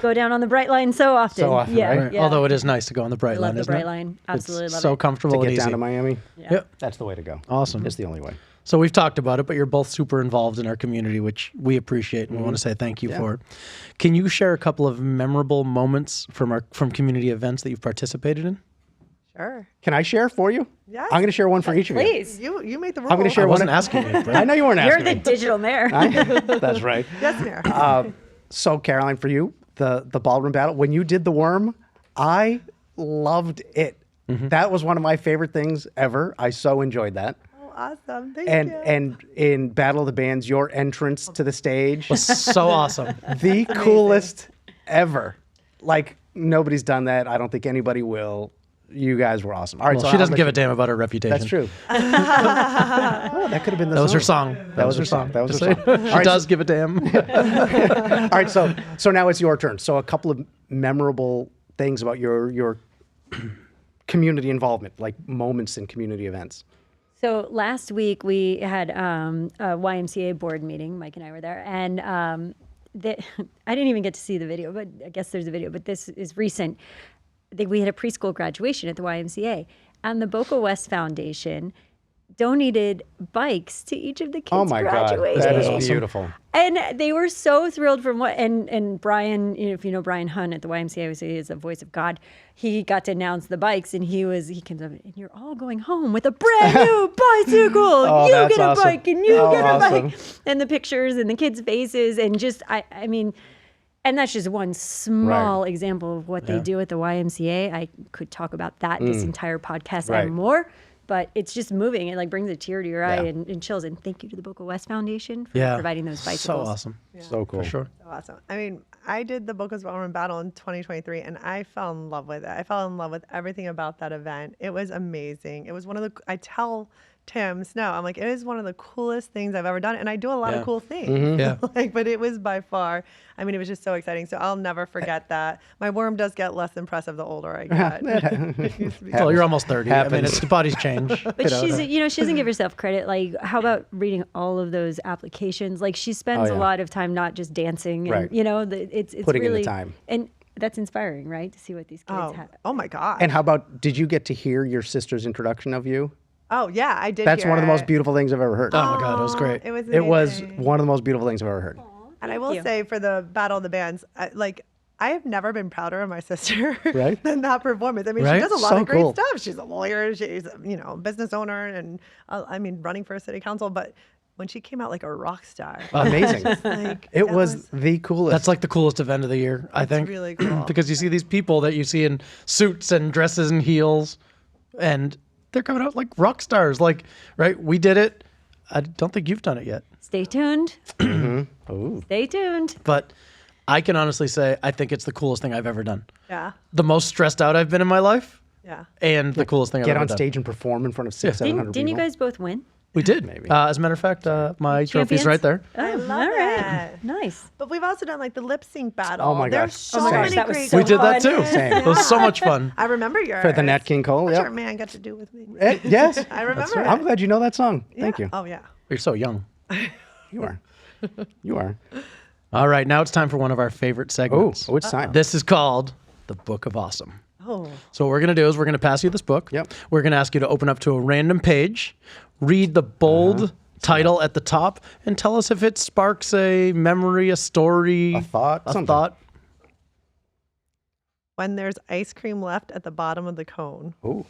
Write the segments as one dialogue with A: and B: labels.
A: go down on the bright line so often.
B: so often,
A: yeah,
B: right?
A: yeah.
C: Although it is nice to go on the bright
A: I love
C: line,
A: the
C: isn't
A: bright
C: it?
A: line.
C: It's
A: Absolutely love
C: so
A: it.
C: comfortable
B: to get
C: and
B: down
C: easy.
B: to Miami.
A: Yeah.
C: Yep.
B: That's the way to go.
C: Awesome.
B: It's the only way.
C: So we've talked about it, but you're both super involved in our community, which we appreciate and
B: Mm-hmm.
C: we want to say thank you for it. Can you share a couple of memorable moments from our from community events that you've participated in?
D: Sure.
B: Can I share for you?
D: Yes.
B: I'm going to share one for each of you.
A: Please,
D: You you made the rule.
B: I'm going to share
C: I wasn't
B: one.
C: asking you.
B: I
C: Brett.
B: know you weren't
A: you're
B: asking.
A: the
B: me.
A: digital mayor.
B: That's right. Um,
D: Yes, Mayor.
B: Uh, So Caroline, for you, the the ballroom battle when you did the worm, I loved it. That was one of my favorite things ever. I so enjoyed that.
D: oh, awesome. Thank
B: And
D: you.
B: and in Battle of the Bands, your entrance to the stage
C: was so awesome.
B: the coolest ever. Like nobody's done that. I don't think anybody will. You guys were awesome. All right,
C: Well,
B: so
C: she
B: I'll
C: doesn't
B: let
C: give
B: you-
C: a damn about her reputation.
B: That's true. oh, that could have been the
C: That was her
B: song.
C: song. That,
B: was her song. That was
C: Just
B: her
C: saying.
B: song. All
C: she
B: right,
C: does give a damn.
B: All right, so so now it's your turn. So a couple of memorable things about your your community involvement, like moments in community events.
A: So last week we had um, a YMCA board meeting. Mike and I were there, and um, the, I didn't even get to see the video, but I guess there's a video. But this is recent. I think we had a preschool graduation at the YMCA, and the Boca West Foundation donated bikes to each of the kids
B: Oh my
A: graduating
B: god, that is
C: Awesome.
B: beautiful.
A: and they were so thrilled from what and and Brian, you know, if you know Brian Hunt at the YMCA, who is the voice of God. He got to announce the bikes, and he was he comes up and you're all going home with a brand new bicycle. you
B: Oh, that's
A: get a
B: awesome.
A: bike, and you
B: Oh,
A: get a
B: awesome.
A: bike, and the pictures and the kids' faces, and just I I mean. And that's just one small example of what they do at the YMCA. I could talk about that this entire podcast
B: Mm. Right.
A: and more, but it's just moving. It like brings a tear to your eye
B: Yeah.
A: and, and chills. And thank you to the Boca West Foundation for
C: yeah.
A: providing those bicycles.
C: So awesome.
B: So cool.
C: For sure.
D: awesome. I mean, I did the Boca's Ballroom Battle in 2023, and I fell in love with it. I fell in love with everything about that event. It was amazing. It was one of the. I tell Tim Snow, I'm like, it is one of the coolest things I've ever done, and I do a lot
C: Yeah.
D: of cool things.
B: Mm-hmm.
C: Yeah.
D: like, but it was by far. I mean, it was just so exciting. So I'll never forget that. My worm does get less impressive the older I get.
C: Well, you're almost 30. I mean,
B: Happens.
C: it's the body's change. Oh
A: But she's, you know, she doesn't
B: Mm-hmm.
A: give herself credit. Like, how about reading all of those applications? Like, she spends
B: Oh,
A: a
B: yeah.
A: lot of time not just dancing, and,
B: Right.
A: you know, the, it's it's
B: Putting in the
A: really
B: time.
A: and that's inspiring, right? To see what these kids
D: oh,
A: have.
D: oh my god.
B: And how about did you get to hear your sister's introduction of you?
D: oh yeah, I did.
B: That's one of the
D: hear
B: most
D: it.
B: beautiful things I've ever heard.
C: Oh my God, it was great.
D: It was.
B: it was
D: amazing.
B: one of the most beautiful things I've ever heard.
D: And I will
A: you.
D: say for the Battle of the Bands, I, like I have never been prouder of my sister
B: Right?
D: than that performance. I mean,
C: Right?
D: she does a lot
B: So
D: of great
B: cool.
D: stuff. She's a lawyer. She's you know a business owner, and uh, I mean running for city council. But when she came out like a rock star,
B: Amazing.
D: like
B: Uh, It
D: that
B: was, the coolest.
C: That's like the coolest event of the year, I think.
D: really cool.
C: because you see these people that you see in suits and dresses and heels, and they're coming out like rock stars. Like, right? We did it. I don't think you've done it yet,
A: Stay tuned.
B: Mm-hmm.
A: Stay tuned.
C: but I can honestly say I think it's the coolest thing I've ever done.
D: yeah,
C: The most stressed out I've been in my life,
D: yeah.
C: and the coolest thing I've
B: get
C: ever
B: on
C: done.
B: stage and perform in front of six, seven
A: Didn't,
B: hundred
A: didn't
B: people.
A: you guys both win?
C: We did. Maybe. Uh, as a matter of fact, uh, my trophy's
A: Champions?
C: right there.
A: Oh,
D: love
A: all right.
D: that.
A: Nice.
D: But we've also done like the lip sync battle.
B: my
D: There's
B: gosh.
D: so
B: Oh my gosh,
D: many
A: that was
D: great.
A: so
C: We did that
A: Fun.
C: too.
B: Same.
C: It was so much fun.
D: I remember yours
B: For the Nat King Cole,
D: What's
B: yeah.
D: your man got to do with me?
B: Eh, yes.
D: I remember.
B: That's right. I'm
D: it.
B: glad you know that song.
D: Yeah.
B: Thank you.
D: Oh yeah.
C: You're so young.
B: You are. You are.
C: All right, now it's time for one of our favorite
B: Oh,
C: segments.
B: oh, it's time.
C: This is called the Book of Awesome.
D: Oh.
C: So what we're gonna do is we're gonna pass you this book.
B: Yep.
C: We're gonna ask you to open up to a random page, read the bold
B: Uh-huh.
C: title at the top, and tell us if it sparks a memory, a story,
B: A thought,
C: a
B: something.
C: thought.
D: When there's ice cream left at the bottom of the cone.
B: Ooh.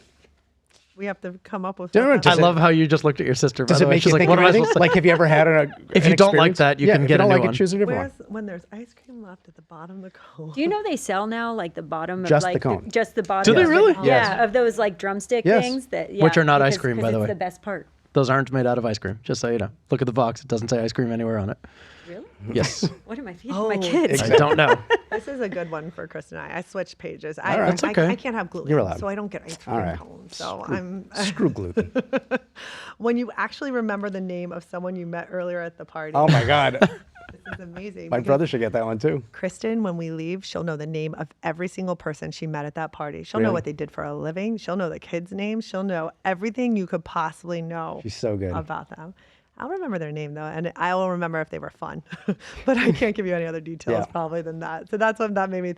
D: We have to come up with.
B: Don't
D: what
B: Does
C: I
B: it-
C: love how you just looked at your sister. By
B: Does
C: the
B: it
C: way,
B: make
C: she's
B: you
C: like,
B: think
C: "What
B: of
C: am I
B: anything?
C: supposed to?"
B: Like, have you ever had an?
C: If
B: an
C: you don't like
B: experience?
C: that, you
B: Yeah,
C: can
B: if
C: get a
B: you don't
C: new
B: like
C: one.
B: it. Choose a
D: that-
B: different one.
D: Where's when there's ice cream left at the bottom of the cone?
A: Do you know they sell now like the bottom of
B: Just the
A: like
B: cone.
A: just the bottom?
C: they
A: of the
C: really?
A: cone.
B: Yes.
A: Yeah, of those like drumstick
B: Yes.
A: things that yeah,
C: Which are not ice
A: because-
C: cream, by
A: 'cause
C: the
A: it's
C: way.
A: The best part.
C: Those aren't made out of ice cream. Just so you know. Look at the box; it doesn't say ice cream anywhere on it.
A: Really?
C: Yes.
A: What am I feeding my
D: Oh,
A: kids?
C: I don't know.
D: this is a good one for Chris and I. I switched pages. I,
B: right.
D: I-
C: That's okay.
D: I, can't have gluten,
B: You're allowed.
D: so I don't get ice cream
B: All right.
D: cones. So I'm.
B: Screw gluten.
D: When you actually remember the name of someone you met earlier at the party,
B: Oh my god,
D: this is amazing.
B: my
D: because
B: brother should get that one too.
D: Kristen, when we leave, she'll know the name of every single person she met at that party. She'll know
B: Really?
D: what they did for a living. She'll know the kids' names. She'll know everything you could possibly know.
B: She's so good.
D: about them. I'll remember their name though, and I will remember if they were fun. but I can't give you any other details probably than that. So that's what that made me